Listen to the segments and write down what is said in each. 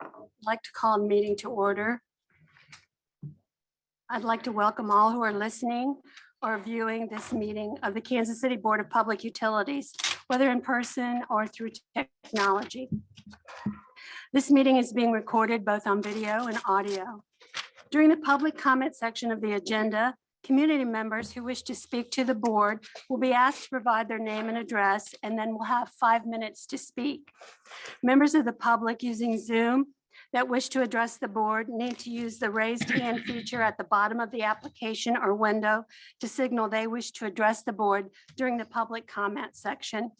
I'd like to call a meeting to order. I'd like to welcome all who are listening or viewing this meeting of the Kansas City Board of Public Utilities, whether in person or through technology. This meeting is being recorded both on video and audio. During the public comment section of the agenda, community members who wish to speak to the board will be asked to provide their name and address, and then we'll have five minutes to speak. Members of the public using Zoom that wish to address the board need to use the raised hand feature at the bottom of the application or window to signal they wish to address the board during the public comment section.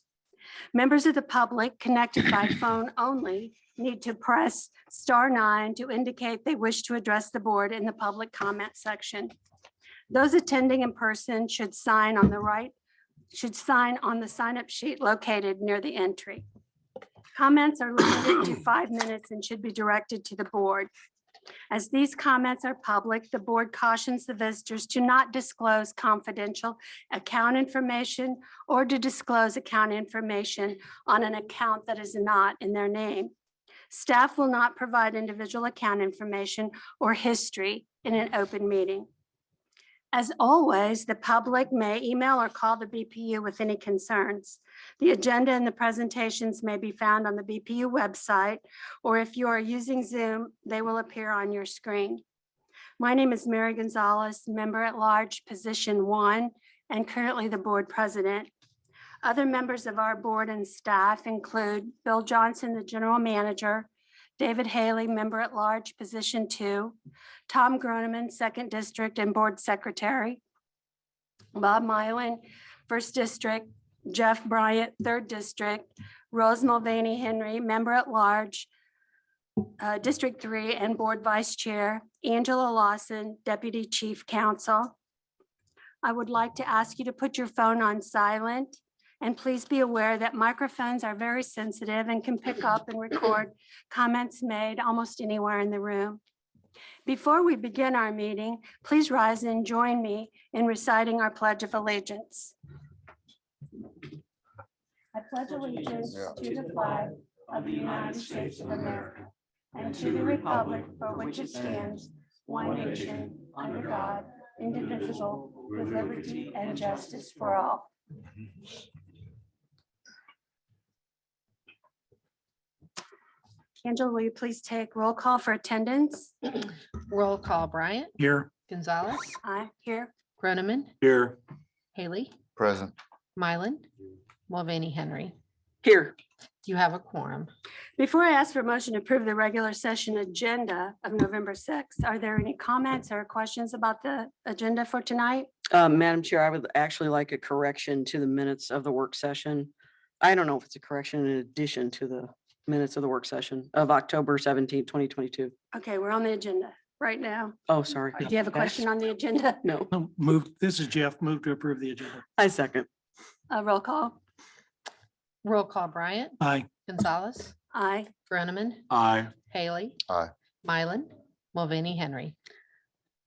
Members of the public connected by phone only need to press star nine to indicate they wish to address the board in the public comment section. Those attending in person should sign on the right, should sign on the sign-up sheet located near the entry. Comments are limited to five minutes and should be directed to the board. As these comments are public, the board cautions the visitors to not disclose confidential account information or to disclose account information on an account that is not in their name. Staff will not provide individual account information or history in an open meeting. As always, the public may email or call the BPU with any concerns. The agenda and the presentations may be found on the BPU website, or if you are using Zoom, they will appear on your screen. My name is Mary Gonzalez, Member at Large, Position One, and currently the Board President. Other members of our board and staff include Bill Johnson, the General Manager, David Haley, Member at Large, Position Two, Tom Groneman, Second District and Board Secretary, Bob Mylan, First District, Jeff Bryant, Third District, Rose Mulvaney Henry, Member at Large, uh, District Three and Board Vice Chair, Angela Lawson, Deputy Chief Counsel. I would like to ask you to put your phone on silent, and please be aware that microphones are very sensitive and can pick up and record comments made almost anywhere in the room. Before we begin our meeting, please rise and join me in reciting our Pledge of Allegiance. I pledge allegiance to the flag of the United States of America and to the republic for which it stands, one nation, under God, indivisible, with liberty and justice for all. Angela, will you please take roll call for attendance? Roll call Bryant, Here. Gonzalez, I here. Groneman, Here. Haley, Present. Mylan, Mulvaney Henry. Here, You have a quorum. Before I ask for a motion to approve the regular session agenda of November 6th, are there any comments or questions about the agenda for tonight? uh, Madam Chair, I would actually like a correction to the minutes of the work session. I don't know if it's a correction in addition to the minutes of the work session of October 17, 2022. Okay, we're on the agenda right now. Oh, sorry. Do you have a question on the agenda? No, No, Oh, Move, this is Jeff, move to approve the agenda. I second. Uh, roll call. Roll call Bryant, Aye. Gonzalez, Aye. Groneman, Aye. Haley. Aye. Mylan, Mulvaney Henry.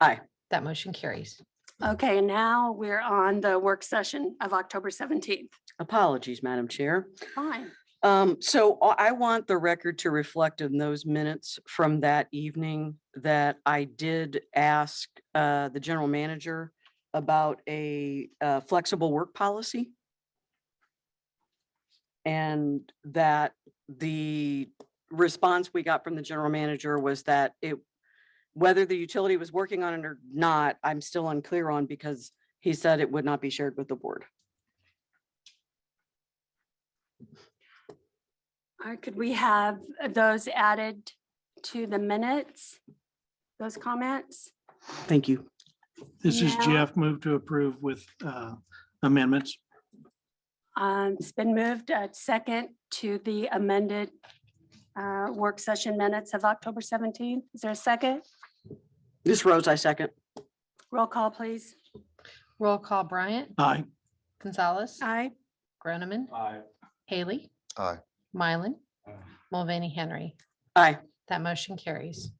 Aye. That motion carries. Okay, and now we're on the work session of October 17th. Apologies, Madam Chair. Fine. Um, so I I want the record to reflect in those minutes from that evening that I did ask uh, the general manager about a uh, flexible work policy. And that the response we got from the general manager was that it, whether the utility was working on it or not, I'm still unclear on because he said it would not be shared with the board. All right, could we have those added to the minutes? Those comments? Thank you. This is Now- Jeff, move to approve with uh, amendments. Um, It's been moved uh, second to the amended uh, work session minutes of October 17th. Is there a second? This Rose, I second. Roll call, please. Roll call Bryant, Aye. Gonzalez, Aye. Groneman, Haley. Aye. Mylan, Mulvaney Henry. Aye. That motion carries.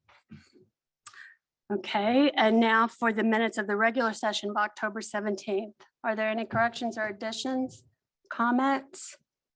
Okay, and now for the minutes of the regular session of October 17th. Are there any corrections or additions, comments?